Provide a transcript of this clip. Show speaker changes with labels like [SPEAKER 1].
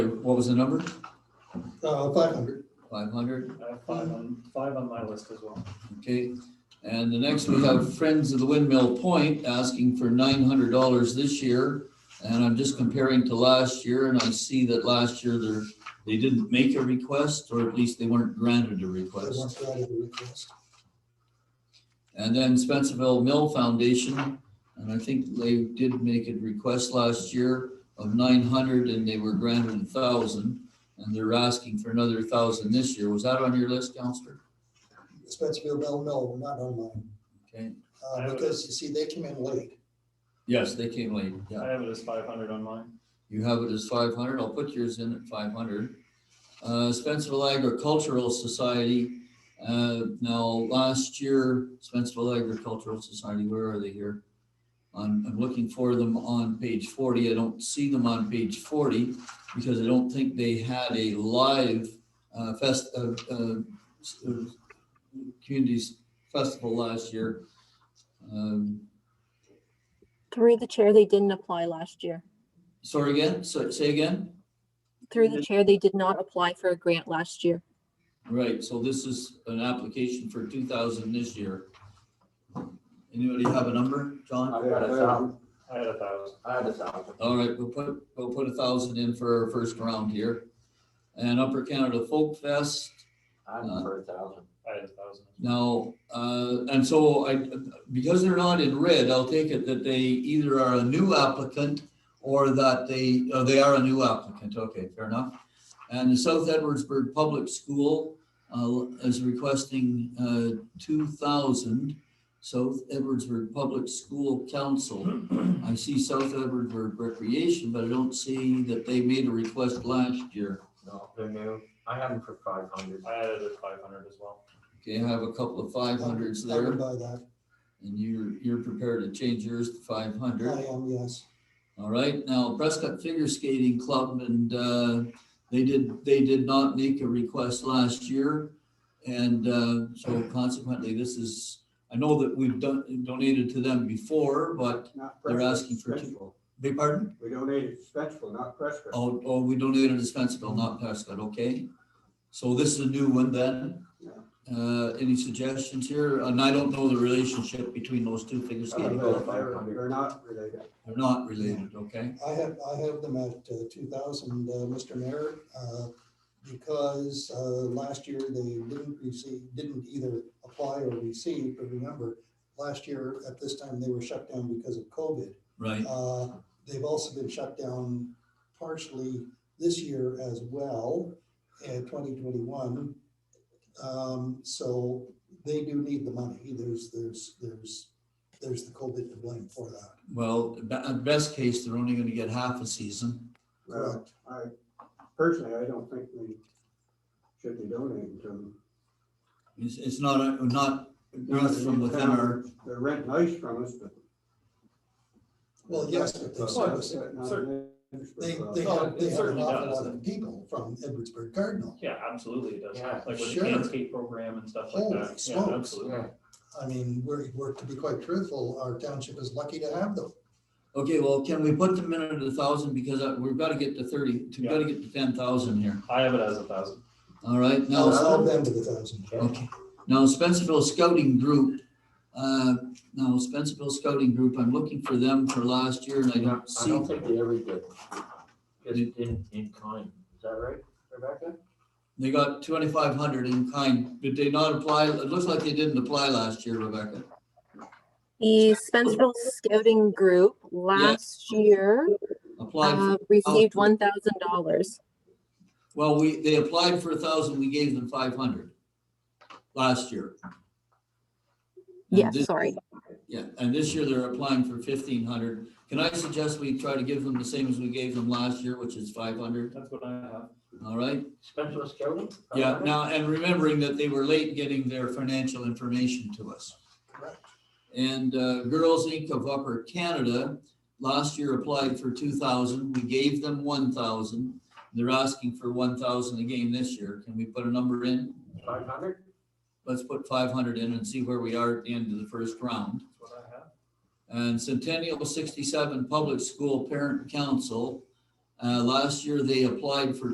[SPEAKER 1] What was the number?
[SPEAKER 2] Uh, five hundred.
[SPEAKER 1] Five hundred,
[SPEAKER 3] I have five on, five on my list as well.
[SPEAKER 1] okay. And the next we have Friends of the Windmill Point asking for nine hundred dollars this year. And I'm just comparing to last year and I see that last year there, they didn't make a request or at least they weren't granted a
[SPEAKER 2] I
[SPEAKER 1] request.
[SPEAKER 2] want to add a request.
[SPEAKER 1] And then Spencerville Mill Foundation, and I think they did make a request last year of nine hundred and they were granted a thousand. And they're asking for another thousand this year. Was that on your list, Counselor?
[SPEAKER 2] Spencerville Bell Mill, not online,
[SPEAKER 1] Okay,
[SPEAKER 3] I
[SPEAKER 2] uh,
[SPEAKER 3] would-
[SPEAKER 2] because you see, they came in late.
[SPEAKER 1] yes, they came late, yeah.
[SPEAKER 3] I have it as five hundred on mine.
[SPEAKER 1] You have it as five hundred, I'll put yours in at five hundred. Uh, Spencerville Agricultural Society, uh, now, last year, Spencerville Agricultural Society, where are they here? I'm, I'm looking for them on page forty, I don't see them on page forty, because I don't think they had a live, uh, fest, uh, uh, s- uh, communities festival last year. Um,
[SPEAKER 4] Through the chair, they didn't apply last year.
[SPEAKER 1] sorry again, so, say again?
[SPEAKER 4] Through
[SPEAKER 1] Mm-hmm.
[SPEAKER 4] the chair, they did not apply for a grant last year.
[SPEAKER 1] Right, so this is an application for two thousand this year. Anybody have a number, John?
[SPEAKER 5] I've got a thousand,
[SPEAKER 3] I had a thousand.
[SPEAKER 5] I had a thousand.
[SPEAKER 1] All right, we'll put, we'll put a thousand in for our first round here. And Upper Canada Folk Fest,
[SPEAKER 5] I'm for a thousand.
[SPEAKER 3] I had a thousand.
[SPEAKER 1] now, uh, and so I, because they're not in red, I'll take it that they either are a new applicant or that they, oh, they are a new applicant, okay, fair enough. And the South Edwardsburg Public School uh, is requesting uh, 2,000 South Edwardsburg Public School Council. I see South Edwardsburg Recreation, but I don't see that they made a request last year.
[SPEAKER 5] No, they're new. I had them for five hundred.
[SPEAKER 3] I added a five hundred as well.
[SPEAKER 1] Okay, I have a couple of 500s
[SPEAKER 2] I would
[SPEAKER 1] there,
[SPEAKER 2] buy that.
[SPEAKER 1] and you're, you're prepared to change yours to 500.
[SPEAKER 2] I am, yes.
[SPEAKER 1] All right, now Prescott Figure Skating Club and uh, they did, they did not make a request last year. And uh, so consequently, this is, I know that we've done, donated to them before, but
[SPEAKER 6] Not
[SPEAKER 1] They're
[SPEAKER 6] Prescott,
[SPEAKER 1] asking for two-
[SPEAKER 6] Spencerville.
[SPEAKER 1] big pardon?
[SPEAKER 6] We donated to Spencerville, not Prescott.
[SPEAKER 1] Oh, oh, we donated to Spencerville, not Prescott, okay? So this is a new one then.
[SPEAKER 6] Yeah.
[SPEAKER 1] Uh, Any suggestions here? And I don't know the relationship between those two figure
[SPEAKER 6] Uh,
[SPEAKER 1] skating.
[SPEAKER 6] They're
[SPEAKER 1] clubs.
[SPEAKER 6] they're not related.
[SPEAKER 1] They're not related, okay?
[SPEAKER 2] I have, I have them at uh, two thousand, Mr. Mayor, uh, because uh, last year they didn't receive, didn't either apply or receive, but remember, last year at this time, they were shut down because of COVID.
[SPEAKER 1] Right,
[SPEAKER 2] Uh, They've also been shut down partially this year as well, in 2021. Um, So they do need the money. There's, there's, there's, there's the COVID to blame for that.
[SPEAKER 1] well, be- at best case, they're only going to get half a season.
[SPEAKER 6] Well, I, personally, I don't think we should be donating to them.
[SPEAKER 1] It's, it's not, a- not, not from within our,
[SPEAKER 6] They're renting ice from us, but.
[SPEAKER 2] Well, yes, but they
[SPEAKER 6] But
[SPEAKER 2] service,
[SPEAKER 6] not
[SPEAKER 2] they,
[SPEAKER 6] Spencerville.
[SPEAKER 2] they
[SPEAKER 3] Oh,
[SPEAKER 2] have,
[SPEAKER 3] it
[SPEAKER 2] they have an
[SPEAKER 3] certainly
[SPEAKER 2] awful
[SPEAKER 3] does.
[SPEAKER 2] lot of people from Edwardsburg Cardinal.
[SPEAKER 3] Yeah, absolutely it does.
[SPEAKER 5] Yeah,
[SPEAKER 3] Like with the
[SPEAKER 2] sure.
[SPEAKER 3] hand skate program and stuff like
[SPEAKER 2] Holy
[SPEAKER 3] that. Yeah,
[SPEAKER 2] smokes.
[SPEAKER 3] absolutely.
[SPEAKER 2] I mean, we're, we're, to be quite truthful, our township is lucky to have them.
[SPEAKER 1] okay, well, can we put them in at a thousand, because I- we've got to get to thirty, we've got to get to ten thousand here,
[SPEAKER 3] I have it as a thousand.
[SPEAKER 1] all right, now.
[SPEAKER 2] I'll sell them to the thousand.
[SPEAKER 1] Okay. Now Spencerville Scouting Group, uh, now Spencerville Scouting Group, I'm looking for them for last year and I don't
[SPEAKER 5] I
[SPEAKER 1] see.
[SPEAKER 5] don't think they ever did. Just in, in kind. Is that right, Rebecca?
[SPEAKER 1] They got twenty-five hundred in kind, did they not apply, it looks like they didn't apply last year, Rebecca.
[SPEAKER 4] The Spencerville Scouting Group last year
[SPEAKER 1] Applied, for-
[SPEAKER 4] uh, received one thousand dollars.
[SPEAKER 1] well, we, they applied for a thousand, we gave them five hundred last year. And
[SPEAKER 4] Yes,
[SPEAKER 1] this-
[SPEAKER 4] sorry.
[SPEAKER 1] Yeah, and this year they're applying for fifteen hundred. Can I suggest we try to give them the same as we gave them last year, which is five hundred,
[SPEAKER 3] That's what I have.
[SPEAKER 1] all right?
[SPEAKER 5] Spencer Scouting?
[SPEAKER 1] Yeah, now, and remembering that they were late getting their financial information to us.
[SPEAKER 2] Correct.
[SPEAKER 1] And uh, Girls Inc. of Upper Canada last year applied for two thousand. We gave them one thousand. They're asking for one thousand again this year. Can we put a number in?
[SPEAKER 5] Five hundred?
[SPEAKER 1] Let's put five hundred in and see where we are at the end of the first round.
[SPEAKER 3] That's what I have.
[SPEAKER 1] And Centennial sixty-seven Public School Parent Council, uh, last year they applied for